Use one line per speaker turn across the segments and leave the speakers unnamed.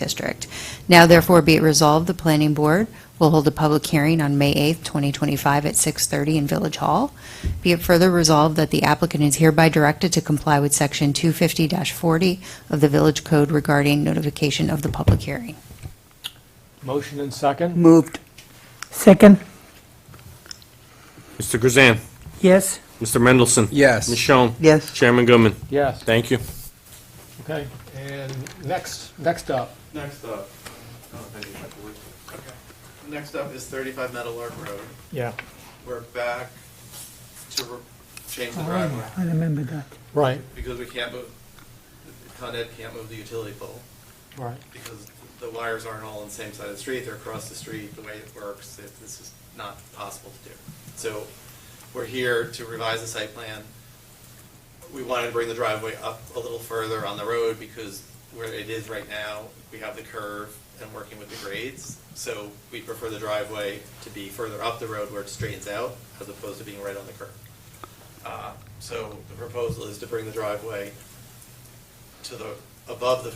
District. Now therefore be it resolved, the Planning Board will hold a public hearing on May 8th, 2025 at 6:30 in Village Hall. Be it further resolved that the applicant is hereby directed to comply with Section 250-40 of the Village Code regarding notification of the public hearing.
Motion and second?
Moved,
Second,
Mr. Grzan.
yes.
Mr. Mendelson.
Yes.
Michonne.
yes.
Chairman Goodman.
Yes,
Thank you.
okay. And next, next up,
Next up, oh, thank you, Michael. Okay. Next up is thirty-five Meadow Lark Road.
yeah,
We're back to re- change the driveway
I remember that.
right,
because we can't move, Con Ed can't move the utility pole
right.
because the wires aren't all on the same side of the street, they're across the street, the way it works, it- this is not possible to do. So we're here to revise the site plan. We wanted to bring the driveway up a little further on the road because where it is right now, we have the curve and working with the grades. So we prefer the driveway to be further up the road where it straightens out as opposed to being right on the curve. Uh, So the proposal is to bring the driveway to the, above the,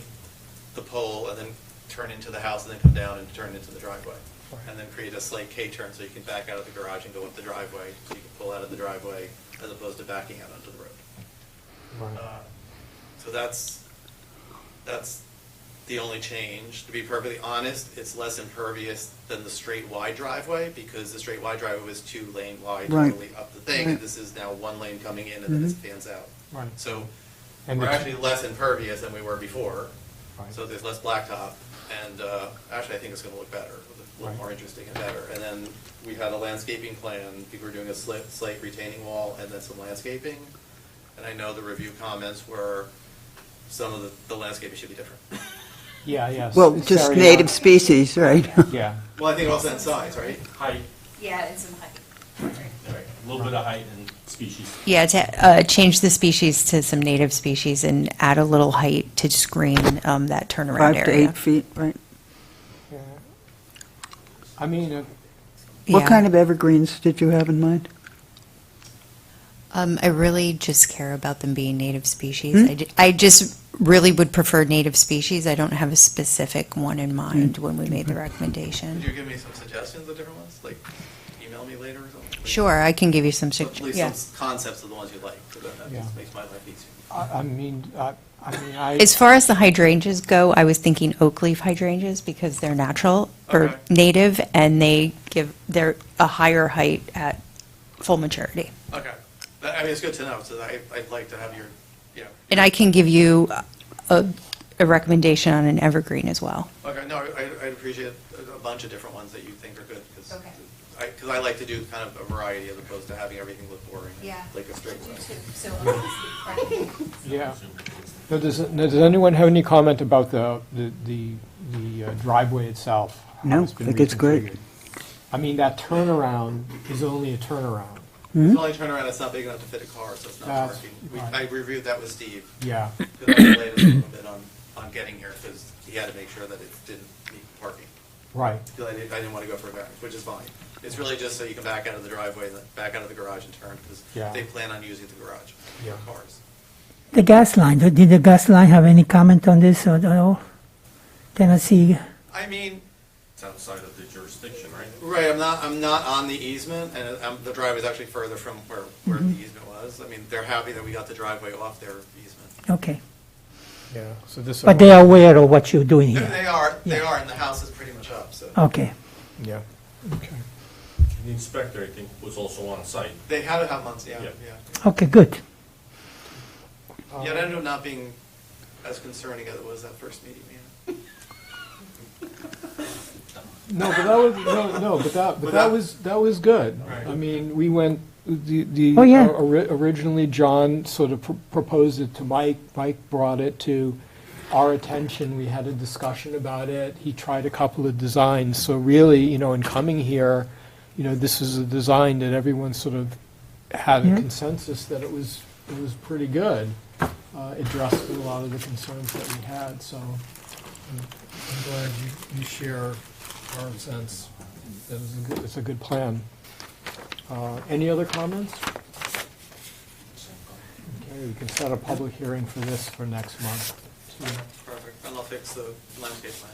the pole and then turn into the house and then come down and turn into the driveway. And then create a slight K-turn so you can back out of the garage and go up the driveway, so you can pull out of the driveway as opposed to backing out onto the road. Uh, So that's, that's the only change. To be perfectly honest, it's less impervious than the straight wide driveway because the straight wide driveway was two lane wide
Right.
totally up the thing. and This is now one lane coming in and then it fans out.
Mm-hmm. Right.
So
And
we're
the-
actually less impervious than we were before,
Right.
so there's less blacktop, and uh, actually, I think it's gonna look better,
Right.
look more interesting and better. And then we had a landscaping plan, people were doing a slit- slate retaining wall and then some landscaping. And I know the review comments were, some of the- the landscaping should be different.
Yeah, yes.
Well,
It's
just
carried
native
on.
species, right?
Yeah,
Well, I think also in size, right?
Height,
Yeah, and some height.
Right.
a little bit of height and species.
Yeah, to uh, change the species to some native species and add a little height to screen um, that
Five
turnaround
to
area.
eight feet, right?
I mean, uh,
What kind of evergreens did you have in mind?
Um, I really just care about them being native species. I, ju- I just really would prefer native species. I don't have a specific one in mind when we made the
Could
recommendation.
you give me some suggestions of different ones, like email me later or something?
Sure, I can give you some
At
suggestions.
least some concepts of the ones you like, so that that
Yeah.
just makes my life easier.
I I mean, I I mean, I,
As far as the hydrangeas go, I was thinking oak leaf hydrangeas because they're natural
Okay.
or native and they give, they're a higher height at full maturity.
Okay, That- I mean, it's good to know, so I, I'd like to have your, you know,
And I can give you a, a recommendation on an evergreen as well.
Okay, no, I, I'd appreciate a- a bunch of different ones that you think are good, because
Okay.
I, because I like to do kind of a variety as opposed to having everything look boring. Like a straight line.
yeah. Now, does, now, does anyone have any comment about the, the- the, the uh, driveway itself? how
No,
been
I think it's great.
reconfigured? I mean, that turnaround is only a turnaround,
It's the only turnaround, it's not big enough to fit a car, so it's not
Mm-hmm. That's
parking. We-
right.
I reviewed that with Steve,
yeah.
because I delayed it a little bit on, on getting here, because he had to make sure that it didn't need parking.
Right,
Because I didn't, I didn't want to go for a variance, which is fine. It's really just so you can back out of the driveway, then back out of the garage and turn, because
Yeah.
they plan on using the garage
Yeah.
for cars.
The gas line, did the gas line have any comment on this or no? Tennessee,
I mean,
It's outside of the jurisdiction, right?
Right, I'm not, I'm not on the easement, and um, the driveway's actually further from where, where the easement was. I mean, they're happy that we got the driveway off their easement.
okay.
yeah, so this.
But they are aware of what you're doing here?
They are, they are, and the house is pretty much up, so.
Okay,
Yeah, okay.
The inspector, I think, was also on site.
They had it on months, yeah,
Yeah.
yeah.
okay, good.
Yeah, it ended up not being as concerning as it was that first meeting, yeah.
No, but that was, no, no, but that, but that was, that was good.
Right.
I mean, we went, the, the.
Oh, yeah.
or- uh, ori- Originally, John sort of pr- proposed it to Mike, Mike brought it to our attention, we had a discussion about it, he tried a couple of designs, so really, you know, in coming here, you know, this is a design that everyone sort of had a consensus that it was, it was pretty good. Uh, addressed a lot of the concerns that we had, so uh, I'm glad you, you share our sense. That is a good, it's a good plan. Uh, any other comments? Okay, we can set a public hearing for this for next month.
Perfect, unless fix the landscape plan.